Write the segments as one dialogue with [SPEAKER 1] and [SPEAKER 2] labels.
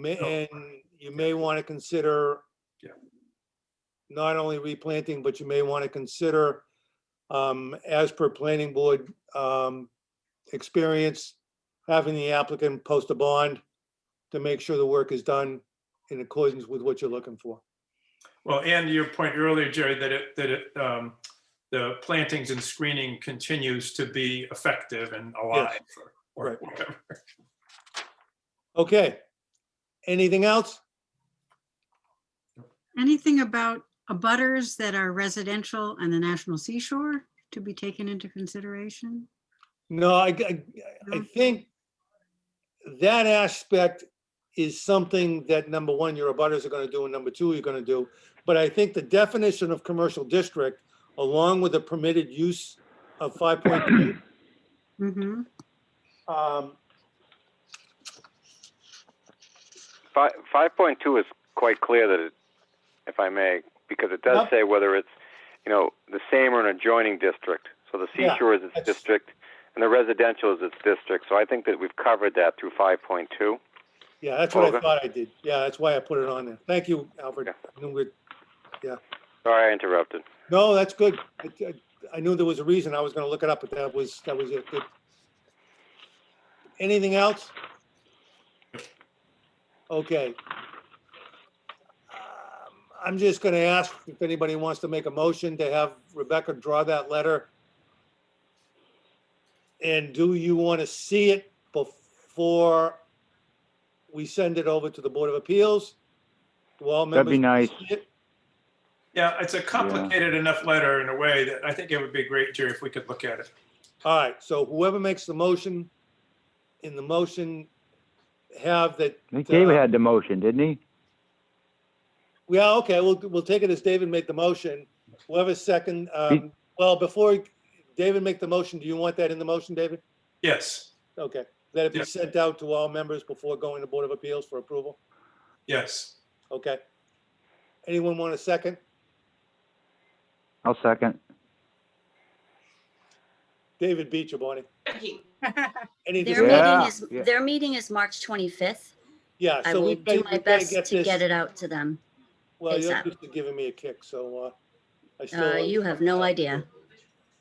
[SPEAKER 1] May, and you may want to consider
[SPEAKER 2] Yeah.
[SPEAKER 1] not only replanting, but you may want to consider, um, as per planning board, um, experience, having the applicant post a bond to make sure the work is done in accordance with what you're looking for.
[SPEAKER 2] Well, and to your point earlier, Jerry, that it, that it, um, the plantings and screening continues to be effective and alive. or- or
[SPEAKER 1] Right.
[SPEAKER 2] whatever.
[SPEAKER 1] Okay. Anything else?
[SPEAKER 3] Anything about abutters that are residential and the National Seashore to be taken into consideration?
[SPEAKER 1] No, I, I, I
[SPEAKER 3] No?
[SPEAKER 1] think that aspect is something that, number one, your abutters are gonna do, and number two, you're gonna do. But I think the definition of commercial district, along with the permitted use of five point three,
[SPEAKER 3] Mm-hmm,
[SPEAKER 1] um,
[SPEAKER 4] Five, five point two is quite clear that it, if I may, because it does
[SPEAKER 1] Yep.
[SPEAKER 4] say whether it's, you know, the same or an adjoining district. So the
[SPEAKER 1] Yeah,
[SPEAKER 4] seashore is its
[SPEAKER 1] that's-
[SPEAKER 4] district, and the residential is its district. So I think that we've covered that through five point two.
[SPEAKER 1] yeah, that's what I
[SPEAKER 4] Okay.
[SPEAKER 1] thought I did. Yeah, that's why I put it on there. Thank you, Alfred.
[SPEAKER 4] Yeah.
[SPEAKER 1] I knew we'd-
[SPEAKER 4] Sorry, I interrupted.
[SPEAKER 1] No, that's good. I, I- I knew there was a reason. I was gonna look it up, but that was, that was it. Good. Anything else? Okay. Um, I'm just gonna ask if anybody wants to make a motion to have Rebecca draw that letter. And do you want to see it before we send it over to the Board of Appeals? Do all
[SPEAKER 5] That'd be
[SPEAKER 1] members
[SPEAKER 5] nice.
[SPEAKER 1] see it?
[SPEAKER 2] Yeah, it's a complicated enough letter in a way that I think it would be great, Jerry, if we could look at it.
[SPEAKER 1] All right, so whoever makes the motion, in the motion, have that,
[SPEAKER 5] I think David had the motion, didn't he?
[SPEAKER 1] yeah, okay, we'll, we'll take it as David made the motion. Whoever second, um,
[SPEAKER 5] He-
[SPEAKER 1] well, before David make the motion, do you want that in the motion, David?
[SPEAKER 2] Yes,
[SPEAKER 1] Okay, that it be
[SPEAKER 2] Yeah.
[SPEAKER 1] sent out to all members before going to Board of Appeals for approval?
[SPEAKER 2] yes.
[SPEAKER 1] Okay. Anyone want a second?
[SPEAKER 5] I'll second.
[SPEAKER 1] David beat you, Bonnie. Anything?
[SPEAKER 6] Their meeting
[SPEAKER 5] Yeah,
[SPEAKER 6] is,
[SPEAKER 5] yeah.
[SPEAKER 6] their meeting is March 25th.
[SPEAKER 1] Yeah,
[SPEAKER 6] I
[SPEAKER 1] so
[SPEAKER 6] will
[SPEAKER 1] we
[SPEAKER 6] do my best to
[SPEAKER 1] this-
[SPEAKER 6] get it out to them.
[SPEAKER 1] Well, you're
[SPEAKER 6] ASAP.
[SPEAKER 1] just giving me a kick, so, uh. I
[SPEAKER 6] Uh,
[SPEAKER 1] still-
[SPEAKER 6] You have no idea.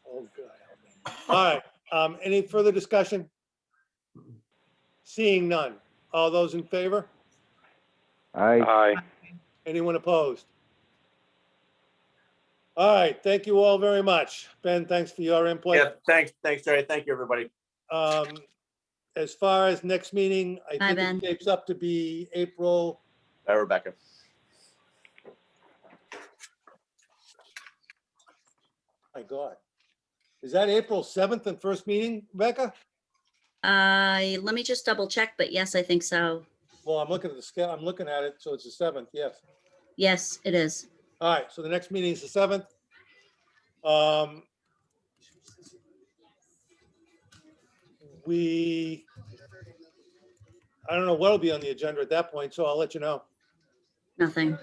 [SPEAKER 1] Oh, God. help me. All right, um, any further discussion? Seeing none. All those in favor?
[SPEAKER 5] I,
[SPEAKER 4] Aye.
[SPEAKER 1] Anyone opposed? All right, thank you all very much. Ben, thanks for your
[SPEAKER 7] Yeah,
[SPEAKER 1] input.
[SPEAKER 7] thanks, thanks, Jerry. Thank you, everybody.
[SPEAKER 1] Um, as far as next meeting, I
[SPEAKER 6] Bye,
[SPEAKER 1] think
[SPEAKER 6] Ben.
[SPEAKER 1] it shapes up to be April,
[SPEAKER 7] Bye, Rebecca.
[SPEAKER 1] my God. Is that April seventh and first meeting, Rebecca?
[SPEAKER 6] Uh, Let me just double check, but yes, I think so.
[SPEAKER 1] Well, I'm looking at the scale, I'm looking at it, so it's the seventh, yes.
[SPEAKER 6] Yes, it is.
[SPEAKER 1] All right, so the next meeting is the seventh. Um. We. I don't know what'll be on the agenda at that point, so I'll let you know.
[SPEAKER 6] Nothing.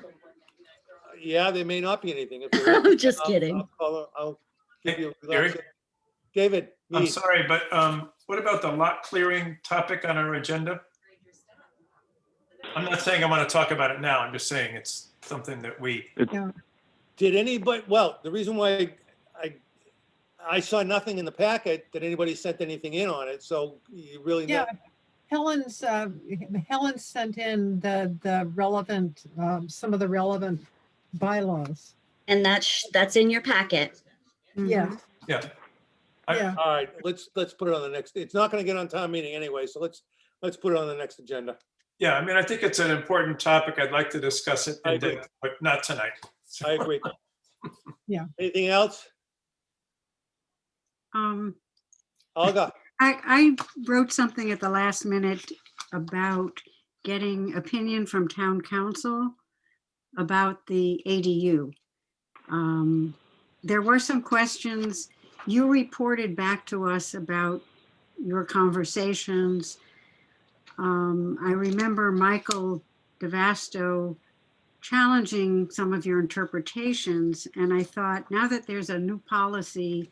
[SPEAKER 1] Yeah, there may not be anything. If there is,
[SPEAKER 6] I'm just
[SPEAKER 1] I'll-
[SPEAKER 6] kidding.
[SPEAKER 1] I'll call- I'll give you. a-
[SPEAKER 2] Gary?
[SPEAKER 1] David,
[SPEAKER 2] I'm
[SPEAKER 1] me.
[SPEAKER 2] sorry, but um, what about the lot clearing topic on our agenda? I'm not saying I want to talk about it now. I'm just saying it's something that we,
[SPEAKER 1] did anybody, well, the reason why I, I saw nothing in the packet that anybody sent anything in on it, so you really.
[SPEAKER 8] Yeah,
[SPEAKER 1] know-
[SPEAKER 8] Helen's, uh, Helen sent in the, the relevant, um, some of the relevant bylaws.
[SPEAKER 6] And that's, that's in your packet.
[SPEAKER 3] Mm-hmm.
[SPEAKER 8] Yeah,
[SPEAKER 2] yeah. I-
[SPEAKER 8] yeah,
[SPEAKER 1] All right, let's, let's put it on the next, it's not gonna get on town meeting anyway, so let's, let's put it on the next agenda.
[SPEAKER 2] Yeah, I mean, I think it's an important topic. I'd like to discuss it
[SPEAKER 1] I
[SPEAKER 2] in
[SPEAKER 1] agree.
[SPEAKER 2] depth, but not tonight.
[SPEAKER 1] I agree.
[SPEAKER 8] Yeah.
[SPEAKER 1] Anything else?
[SPEAKER 3] um.
[SPEAKER 1] Olga,
[SPEAKER 3] I, I wrote something at the last minute about getting opinion from town council about the ADU. Um, There were some questions. You reported back to us about your conversations. Um, I remember Michael DeVasto challenging some of your interpretations, and I thought, now that there's a new policy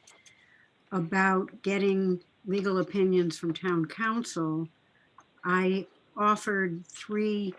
[SPEAKER 3] about getting legal opinions from town council, I offered three